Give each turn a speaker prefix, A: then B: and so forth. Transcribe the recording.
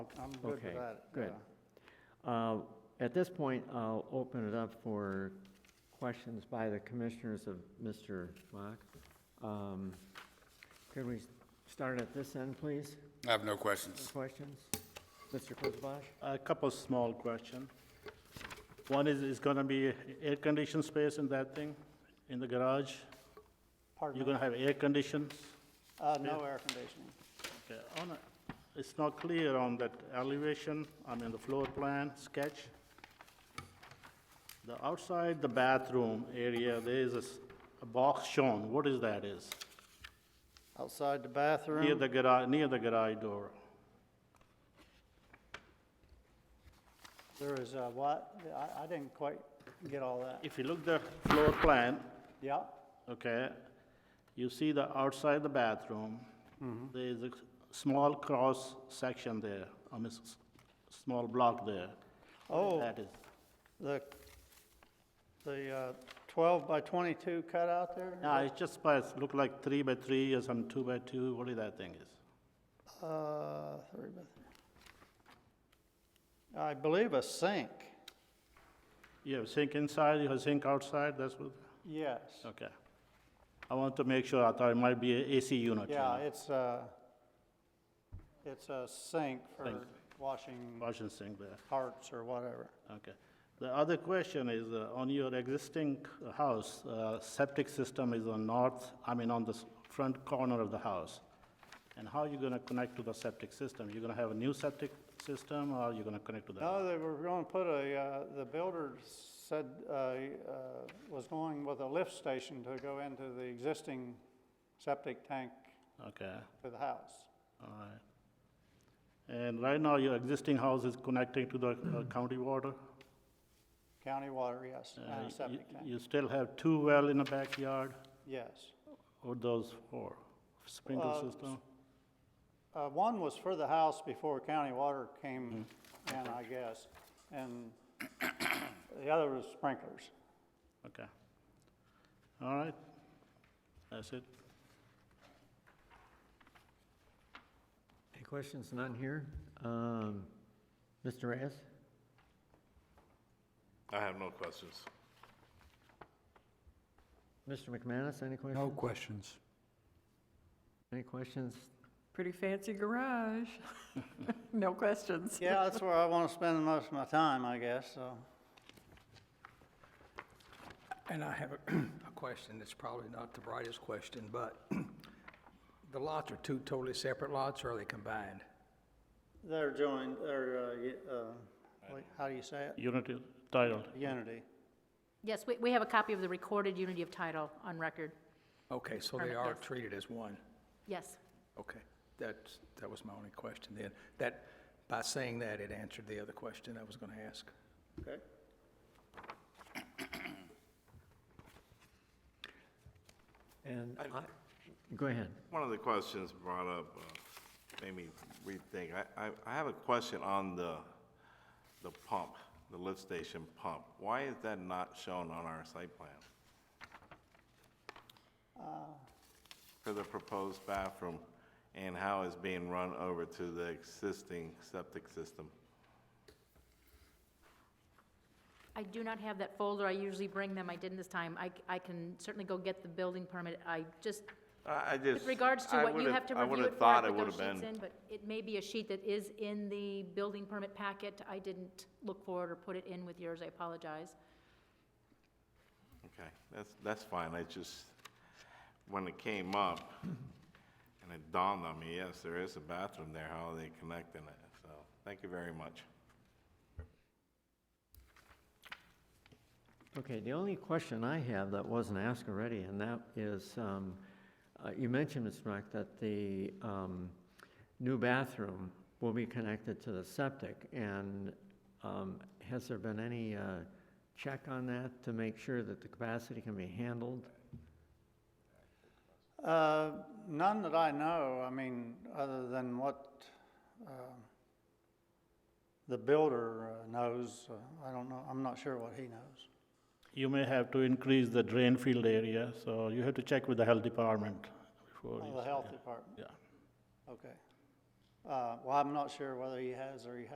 A: I'm good
B: Okay,
A: with that.
B: good.
A: yeah.
B: Uh, At this point, I'll open it up for questions by the commissioners of Mr. Mock. Um, Could we start at this end, please?
C: I have no questions.
B: Questions? Mr. Kurzbosch?
D: A couple small question. One is, is gonna be air-conditioned space in that thing, in the garage? You're
A: Pardon me?
D: gonna have air conditions?
A: Uh, no air conditioning.
D: Okay, on a- It's not clear on that elevation, I mean, the floor plan sketch. The outside, the bathroom area, there is a s- a box shown, what is that is?
A: Outside the
D: Near
A: bathroom,
D: the garage, near the garage door,
A: there is a what? I, I didn't quite get all that.
D: if you look the floor plan,
A: Yeah,
D: okay? You see the outside the bathroom,
A: Mm-hmm.
D: there is a s- small cross section there, I mean, s- s- small block there.
A: Oh.
D: That is,
A: the, the uh, 12 by 22 cutout there?
D: yeah, it's just, by it's look like three by three or some two by two, what is that thing is?
A: Uh, three by- I believe a sink,
D: You have sink inside, you have sink outside, that's what,
A: yes.
D: okay. I want to make sure, I thought it might be a AC unit. you
A: Yeah,
D: know,
A: it's a, it's a sink for
D: Sink.
A: washing
D: Washing sink there.
A: parts or whatever.
D: Okay. The other question is, uh, on your existing c- house, uh, septic system is on north, I mean, on the s- front corner of the house. And how are you going to connect to the septic system? You're going to have a new septic system, or you're going to connect to the?
A: No, they were going to put a, uh, the builder said, uh, uh, was going with a lift station to go into the existing septic tank
D: Okay,
A: to the house.
D: all right. And right now, your existing house is connecting to the uh, county water?
A: County water, yes,
D: Uh,
A: and a
D: you-
A: septic tank,
D: You still have two well in the backyard,
A: yes.
D: or those four?
A: Uh,
D: Sprinkler system?
A: Uh, One was for the house before county water came in, I guess, and the other was sprinklers.
D: Okay. All right. That's it.
B: Any questions? None here? Um, Mr. Reyes?
E: I have no questions.
B: Mr. McManus, any questions?
F: No questions.
B: Any questions?
G: Pretty fancy garage. No questions.
A: Yeah, that's where I want to spend most of my time, I guess, so.
F: And I have a a question that's probably not the brightest question, but the lots are two totally separate lots, or are they combined?
A: They're joined, they're, uh, y- uh, wait, how do you say it?
D: Unit is titled.
A: Unity.
H: Yes, we, we have a copy of the recorded unity of title on record.
F: Okay, so they
H: Perfect,
F: are
H: yes.
F: treated as one.
H: Yes.
F: Okay, that's, that was my only question then. That, by saying that, it answered the other question I was going to ask.
A: Okay.
B: And I, go ahead.
E: One of the questions brought up uh, made me rethink. I, I, I have a question on the, the pump, the lift station pump. Why is that not shown on our site plan?
H: Uh.
E: For the proposed bathroom and how it's being run over to the existing septic system?
H: I do not have that folder. I usually bring them. I didn't this time. I, c- I can certainly go get the building permit. I just,
E: I I just.
H: with regards to
E: I
H: what you
E: would've-
H: have to
E: I
H: review
E: would've
H: it for, I
E: thought
H: put
E: would've
H: those sheets
E: been-
H: in, but it may be a sheet that is in the building permit packet. I didn't look for it or put it in with yours. I apologize.
E: Okay, that's, that's fine, I just, when it came up, and it dawned on me, yes, there is a bathroom there, how are they connecting it? So, thank you very much.
B: Okay, the only question I have that wasn't asked already, and that is, um, uh, you mentioned, Mr. Mack, that the um, new bathroom will be connected to the septic, and um, has there been any uh, check on that to make sure that the capacity can be handled?
A: Uh, None that I know, I mean, other than what um, the builder uh, knows. Uh, I don't know, I'm not sure what he knows.
D: You may have to increase the drain field area, so you have to check with the health department before
A: Oh,
D: you.
A: The
D: say-
A: health department,
D: Yeah.
A: okay. Uh, well, I'm not sure whether he has or he